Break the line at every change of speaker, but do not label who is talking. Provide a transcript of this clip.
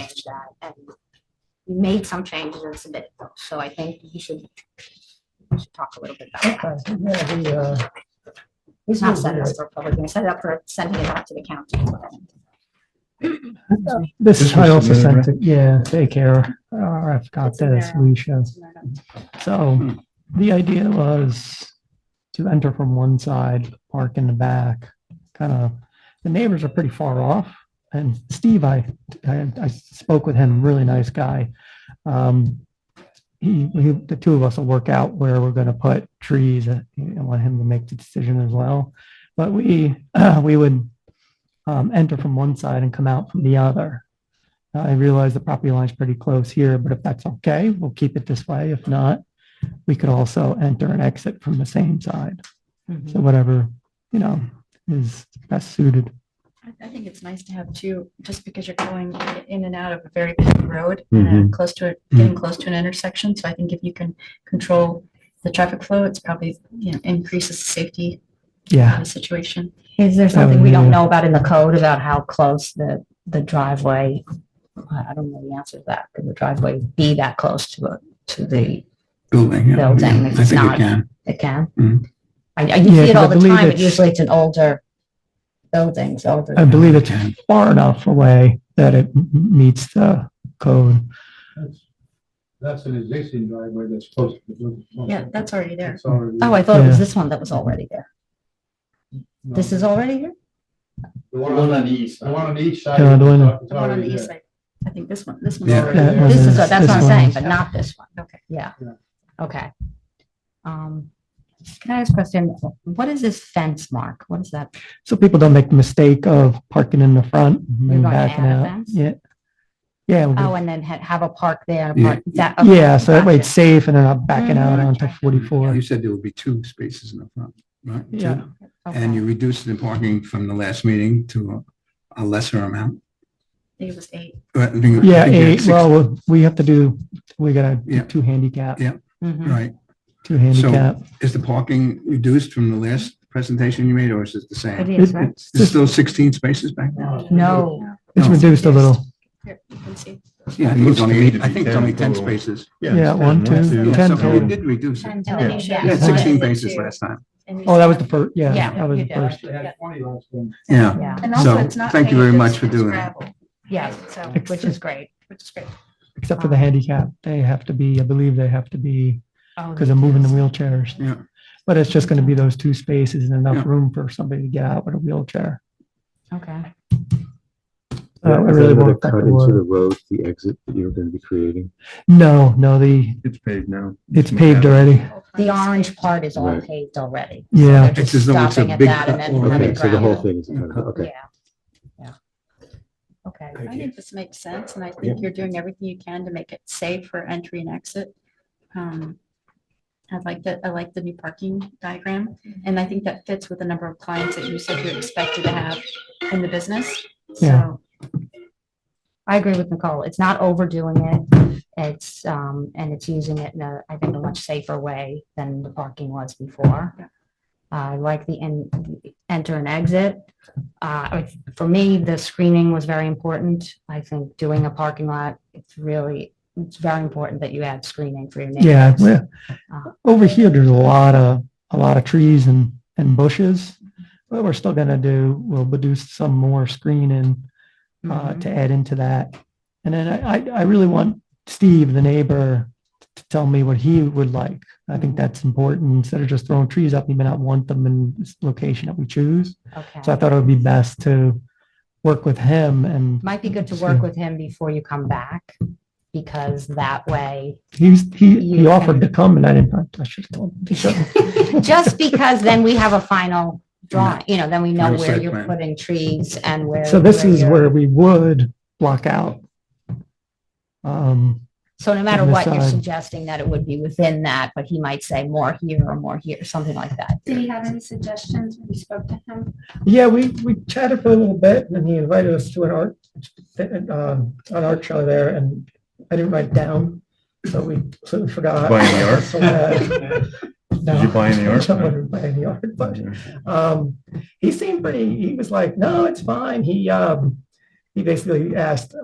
that and made some changes and submitted them. So I think you should, we should talk a little bit about that.
Okay, yeah, the, uh,
It's
this
not
is
set
weird.
up for public, we set it up for sending it out to the county.
This,
This
I
was
also
submitted,
sent it, yeah, take care, or I forgot
It's in
this,
there.
we should. So the idea was to enter from one side, park in the back, kind of, the neighbors are pretty far off. And Steve, I, I, I spoke with him, really nice guy. Um, he, we, the two of us will work out where we're going to put trees and I want him to make the decision as well. But we, we would, um, enter from one side and come out from the other. I realize the property line's pretty close here, but if that's okay, we'll keep it this way. If not, we could also enter and exit from the same side.
Mm-hmm.
So whatever, you know, is best suited.
I- I think it's nice to have two, just because you're going i- in and out of a very busy road and uh,
Mm-hmm.
close to it, getting close to an intersection. So I think if you can control the traffic flow, it's probably, you know, increases the safety of
Yeah.
the situation.
Is there
something we don't know
about in the code about how close the, the driveway? I don't know the answer to that. Could the driveway be that close to it, to the,
Building. yeah.
Building, if
I
it's
think
not-
it can.
it can?
Mhm.
I,
you see Mm-hmm. Yeah, it 'cause all I the believe time, but it's- usually
it's an older building, older.
I believe it's far enough away that it m- meets the code.
That's- That's an existing driveway that's close to the building.
Yeah, that's already there.
It's already-
Oh, I thought it was
Yeah.
this one that was already there.
no.
This is already here?
The one on the east. The one on each side.
Yeah, the one-
is- is
The one on the
already
east
there.
side. I think this one, this
Yeah.
one.
That
This is,
was-
what- that's
this
what I'm
one
saying,
was-
but not this one.
Okay.
Yeah.
Yeah.
Okay. Um, can I ask a question? What is this fence mark? What is that?
So people don't make the mistake of parking in the front and
gonna
backing
add a
out.
fence?
Yeah. Yeah. we'll
Oh, and then ha- have a park there. a
Yeah.
park- that-
do-
Oh, okay,
Yeah, so that way it's
gotcha.
safe and they're not backing out
Mhm.
onto forty-four.
You said there would be two spaces in the front, right? Two?
Yeah.
And you reduced the parking from the last meeting to a a lesser amount. Uh,
I think it was eight.
I think- I
Yeah,
think you had
eight,
six-
well, we have to do, we gotta do
Yeah.
two handicap,
Yeah.
Mhm.
Right.
two handicap.
Is the parking reduced from the last presentation you made or is it the
It is,
same?
right?
There's still 16 spaces back there?
No,
It's
No.
reduced a little.
Here, you can see.
Yeah, I think it's only, eight- I think it's only 10 spaces.
Yeah, one, two,
Yeah,
ten
so
total.
You did reduce it.
And then you should-
You had 16 bases
Two.
last time.
And you
Oh, that
said-
was the first, yeah,
Yeah,
that was
you
the
did.
first.
They had twenty last one.
Yeah.
yeah,
And
So,
also it's not
thank you very
paved,
much
it's-
for
it's
doing that.
gravel,
yeah,
So,
which is great.
which is great.
Except for the
Um,
handicap, they have to be, I believe they have to be,
Oh,
because they're moving the wheelchairs.
Yeah.
But it's just gonna be those two spaces and enough
Yeah.
room for somebody to get out with a wheelchair.
Okay.
Uh, it
Is that
really
another
won't affect
cut
the
Into
water.
the road, the exit that you're going to be creating.
No, no, the,
It's paved now.
it's paved already.
All kinds
The
of
orange
space.
part is all
Right.
paved already.
Yeah.
They're
It's
just
as though it's a
stopping at
big
that and
cut
then
over.
having
Okay, so the whole
gravel.
thing is kind of, okay.
Yeah, yeah. Okay.
I think this makes sense, and I think you're doing everything you can to make it safe for entry and exit. Um, I like that, I like the new parking diagram,
Mm-hmm.
and I think that fits with the number of clients that you said you expected to have in the business.
Yeah.
So,
I agree with Nicole. It's not overdoing it. It's, um, and it's using it in a, I think, a much safer way than the parking was before.
Yeah.
Uh, I like the en- enter and exit. Uh, I- for me, the screening was very important. I think doing a parking lot, it's really, it's very important that you add screening for your
Yeah,
neighbors.
well,
Uh,
over here, there's a lot of, a lot of trees and, and bushes. What we're still gonna do, we'll do some more screening uh,
mhm.
to add into that. And then I, I, I really want Steve, the neighbor, to tell me what he would like. I think that's important. Instead of just throwing trees up, he may not want them in this location that we choose. So I
Okay.
thought it would be best to work with him and
Might be good to
See.
work with him before you come back because that way
he's, he, he
You
offered to come and I didn't, I should have told him. to come.
Just because then we have a final drawing, you know, then we know
Final
where
site
you're
plan.
putting trees and where.
So this is
you're-
where we would block out. Um,
So no matter
on the
what, you're
side.
suggesting that it would be within that, but he might say more here or more here, something like that.
Did he have any suggestions when you spoke to him?
Yeah, we, we chatted for a little bit and he invited us to an art, um, an art show there and I didn't write down, so we sort of forgot.
Buy any art?
So, uh, no,
Did you buy any art?
I wouldn't buy any art, but, um, he seemed pretty, he was like, no, it's fine. He, um, he basically asked,